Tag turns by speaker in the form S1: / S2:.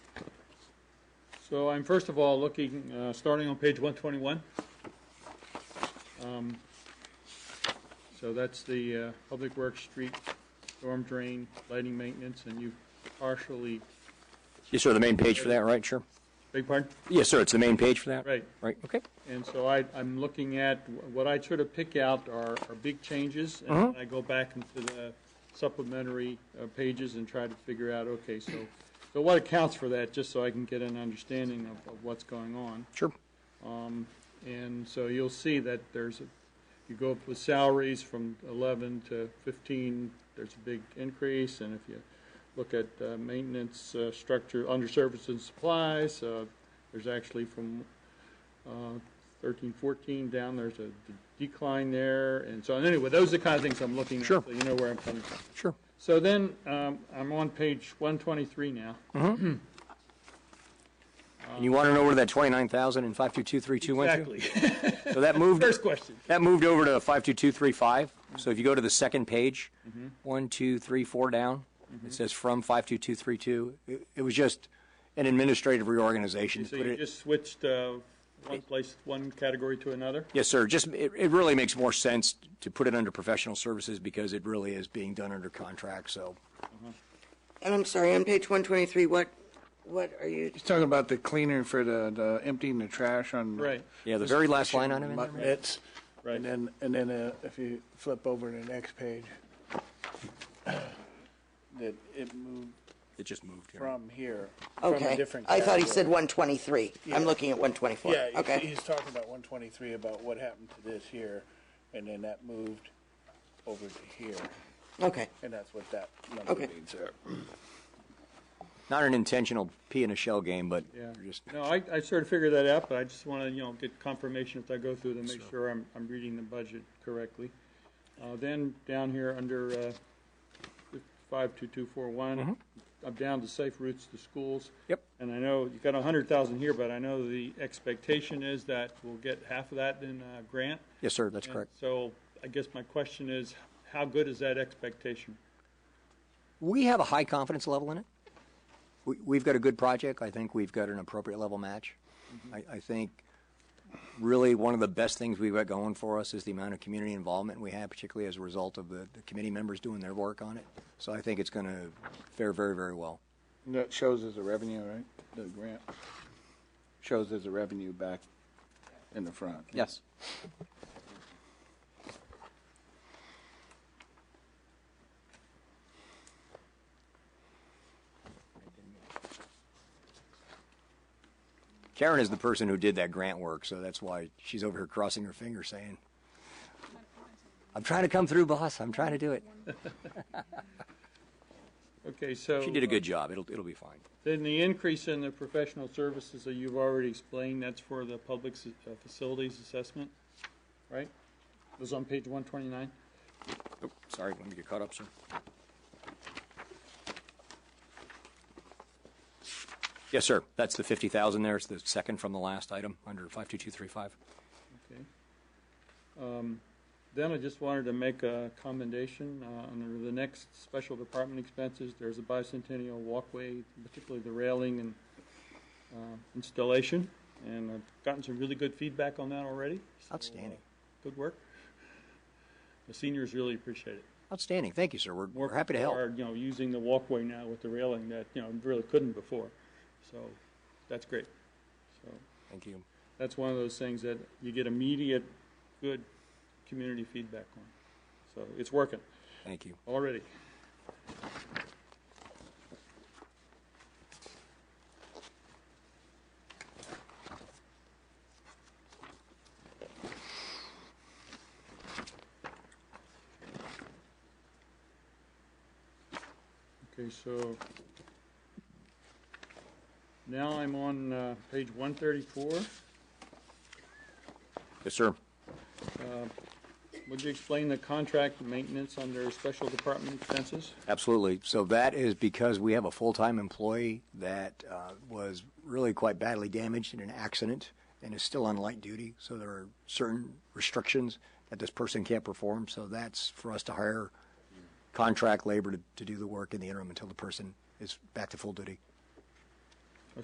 S1: So I'm first of all looking, uh, starting on page one twenty-one. Um, So that's the, uh, Public Works Street Storm Drain Lighting Maintenance, and you partially,
S2: Yes, sir, the main page for that, right, sure?
S1: big pardon?
S2: Yes, sir, it's the main page for that?
S1: Right.
S2: Right, okay.
S1: And so I, I'm looking at, what I sort of pick out are, are big changes, and I go back into the supplementary uh, pages and try to figure out, okay, so, so what accounts for that, just so I can get an understanding of, of what's going on.
S2: Sure.
S1: And so you'll see that there's, a you go up with salaries from 11 to 15, there's a big increase. And if you look at uh, maintenance uh, structure, under services and supplies, uh, there's actually from uh, 13, 14 down, there's a d- decline there. And so anyway, those are the kind of things I'm looking at.
S2: Sure.
S1: So you know where I'm coming from.
S2: Sure.
S1: So then, um, I'm on page 123 now.
S2: And you want to know where that 29,000 and 522322 went to?
S1: Exactly.
S2: So that moved,
S1: First Mm-hmm. question.
S2: that moved over to 52235. So if you go to the second page,
S1: Mm-hmm.
S2: one, two, three, four down, it says from 52232. It- It was just an administrative reorganization. to
S1: So
S2: put
S1: you
S2: it-
S1: just switched uh, one place, one category to another?
S2: Yes, sir. Just, it, it really makes more sense to put it under professional services because it really is being done under contract, so.
S3: And I'm sorry, on page 123, what, what are you,
S4: He's talking about the cleaner for the, the emptying the trash on.
S1: Right.
S2: Yeah, the very last line item in there.
S4: Mutt mitts.
S1: Right.
S4: And then, and then uh, if you flip over to the next page, that it moved
S2: It just moved here.
S4: from here, from a
S3: okay.
S4: different.
S3: I thought he said
S4: category.
S3: 123. I'm
S4: Yeah.
S3: looking at 124.
S4: Yeah, he's-
S3: Okay,
S4: he's talking about one twenty-three, about what happened to this here, and then that moved over to here,
S3: okay.
S4: and that's what that number
S3: Okay.
S4: means there.
S2: Not an intentional pea in a shell game, but
S1: Yeah.
S2: just,
S1: No, I, I sort of figured that out, but I just want to, you know, get confirmation as I go through to make sure I'm, I'm reading the budget correctly. Uh, then down here under, uh,
S2: Mm-hmm.
S1: five-two-two-four-one, I'm down to safe routes to schools.
S2: Yep.
S1: And I know you got a hundred thousand here, but I know the expectation is that we'll get half of that in, uh, grant.
S2: yes, sir, that's correct.
S1: And So I guess my question is, how good is that expectation?
S2: We have a high confidence level in it. We, we've got a good project. I think we've got an appropriate level match. I, I think really one of the best things we've got going for us is the amount of community involvement we have, particularly as a result of the, the committee members doing their work on it. So I think it's going to fare very, very well.
S4: And That shows as a revenue, right? The grant shows as a revenue back in the front.
S2: Yes. Karen is the person who did that grant work, so that's why she's over here crossing her fingers saying, I'm trying to come through, boss. I'm trying to do it.
S1: Okay, so.
S2: She did a good job. It'll, it'll be fine.
S1: Then the increase in the professional services that you've already explained, that's for the public s- uh, facilities assessment, right? It was on page one twenty-nine?
S2: Oh, sorry, let me get caught up, sir. Yes, sir. That's the 50,000 there. It's the second from the last item under 52235.
S1: Okay. Um, Then I just wanted to make a commendation uh, on the next special department expenses. There's a bicentennial walkway, particularly the railing and uh, installation. And I've gotten some really good feedback on that already. So, uh,
S2: Outstanding.
S1: Good work. The seniors really appreciate it.
S2: Outstanding. Thank you, sir. We're,
S1: more
S2: we're happy to
S1: people
S2: help.
S1: Are, you know, using the walkway now with the railing that, you know, really couldn't before. So that's great. So
S2: Thank you.
S1: that's one of those things that you get immediate, good community feedback on. So it's working
S2: Thank you.
S1: already. Okay, so now I'm on uh, page 134.
S2: Yes, sir.
S1: Would you explain the contract maintenance under special department expenses?
S2: Absolutely. So that is because we have a full-time employee that uh, was really quite badly damaged in an accident and is still on light duty. So there are certain restrictions that this person can't perform. So that's for us to hire contract labor to, to do the work in the interim until the person is back to full duty.